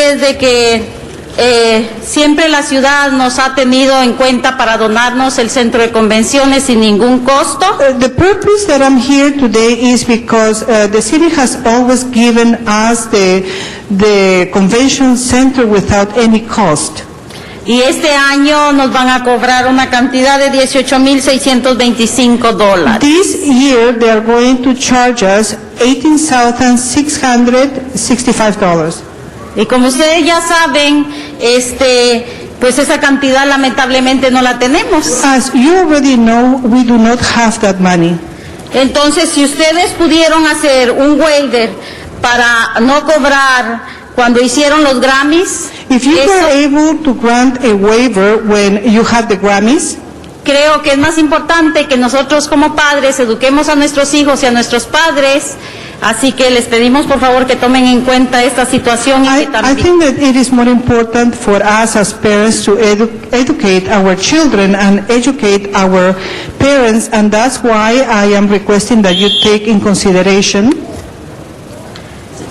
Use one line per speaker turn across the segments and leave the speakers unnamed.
ustedes de que eh, siempre la ciudad nos ha tenido en cuenta para donarnos el centro de convenciones sin ningún costo.
Uh, The purpose that I'm here today is because uh, the city has always given us the, the convention center without any cost.
Y este año nos van a cobrar una cantidad de 18.625 dólares.
This year, they are going to charge us $18,665.
Y como ustedes ya saben, este, pues esa cantidad lamentablemente no la tenemos.
As you already know, we do not have that money.
Entonces, si ustedes pudieron hacer un welder para no cobrar cuando hicieron los Grammys,
If you
eso
were able to grant a waiver when you had the Grammys,
creo que es más importante que nosotros como padres eduquemos a nuestros hijos y a nuestros padres. Así que les pedimos por favor que tomen en cuenta esta situación y que
I, I
también...
think that it is more important for us as parents to edu- educate our children and educate our parents, and that's why I am requesting that you take in consideration.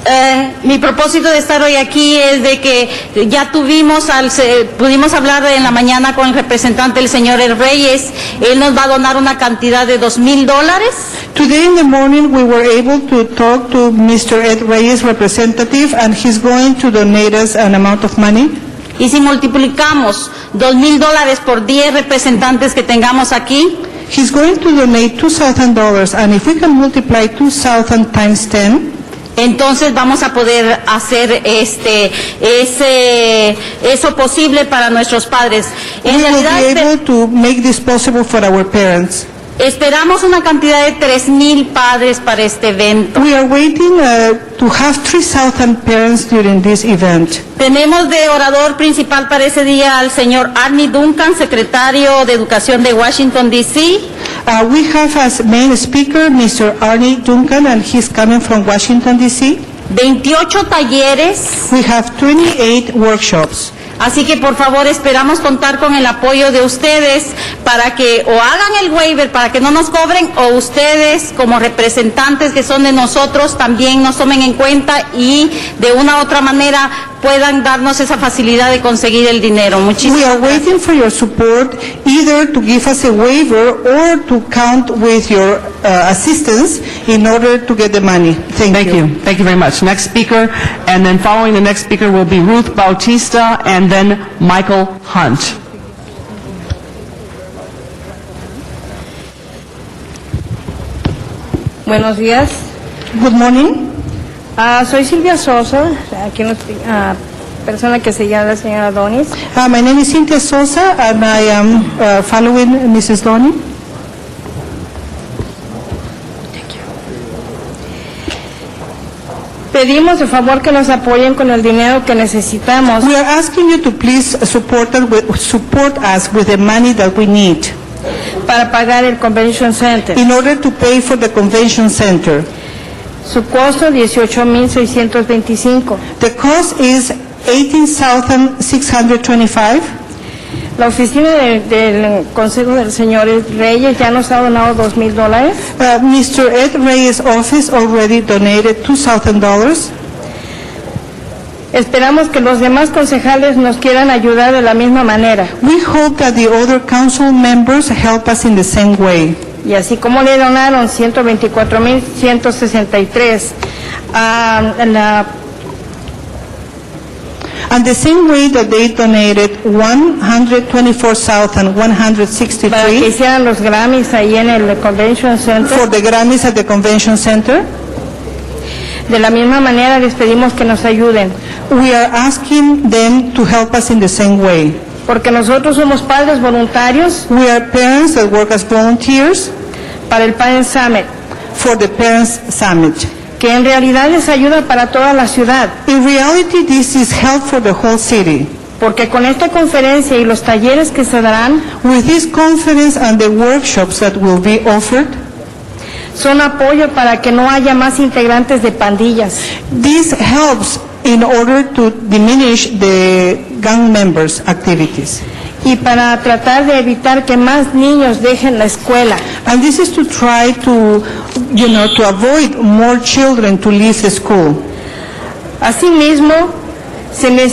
Eh, mi propósito de estar hoy aquí es de que ya tuvimos al, se- pudimos hablar en la mañana con el representante, el señor El Reyes. Él nos va a donar una cantidad de dos mil dólares.
Today in the morning, we were able to talk to Mr. Ed Reyes' representative, and he's going to donate us an amount of money.
Y si multiplicamos dos mil dólares por 10 representantes que tengamos aquí,
He's going to donate $2,000, and if we can multiply 2,000 times 10,
entonces vamos a poder hacer este, ese, eso posible para nuestros padres.
we
En
will
realidad,
be
esper-
able to make this possible for our parents.
esperamos una cantidad de tres mil padres para este evento.
We are waiting uh, to have 3,000 parents during this event.
Tenemos de orador principal para ese día al señor Arnie Duncan, secretario de Educación de Washington, D.C.
Uh, We have as main speaker Mr. Arnie Duncan, and he's coming from Washington DC.
28 talleres,
We have 28 workshops.
así que por favor esperamos contar con el apoyo de ustedes para que o hagan el waiver para que no nos cobren o ustedes como representantes que son de nosotros también nos tomen en cuenta y de una u otra manera puedan darnos esa facilidad de conseguir el dinero.
We
Muchísimas
are
gracias.
waiting for your support, either to give us a waiver or to count with your uh, assistance in order to get the money. Thank
Thank
you.
you. Thank you very much. Next speaker, and then following the next speaker will be Ruth Bautista and then Michael Hunt.
Buenos días.
Good morning.
Ah, soy Silvia Sosa, aquí nos- ah, persona que se llama la señora Donis.
Uh, My name is Cynthia Sosa, and I am uh, following Mrs. Donnie.
Pedimos de favor que nos apoyen con el dinero que necesitamos.
We are asking you to please support us with- support us with the money that we need
para pagar el Convention Center.
in order to pay for the convention center.
Su costo 18.625.
The cost is $18,625.
La oficina de- del Consejo del Señor Reyes ya nos ha donado 2.000 dólares.
Uh, Mr. Ed Reyes' office already donated $2,000.
Esperamos que los demás concejales nos quieran ayudar de la misma manera.
We hope that the other council members help us in the same way.
Y así como le donaron 124.163 a ah, la
And the same way that they donated
para que
$124,163
hicieran los Grammys ahí en el Convention
for
Center.
the Grammys at the convention center,
De la misma manera les pedimos que nos ayuden,
we are asking them to help us in the same way.
porque nosotros somos padres voluntarios
We are parents that work as volunteers
para el Parent Summit,
for the Parents Summit.
que en realidad les ayuda para toda la ciudad,
In reality, this is help for the whole city.
porque con esta conferencia y los talleres que se darán
With this conference and the workshops that will be offered,
son apoyo para que no haya más integrantes de pandillas.
this helps in order to diminish the gang members' activities.
Y para tratar de evitar que más niños dejen la escuela.
And this is to try to, you know, to avoid more children to leave the school.
Asimismo, se les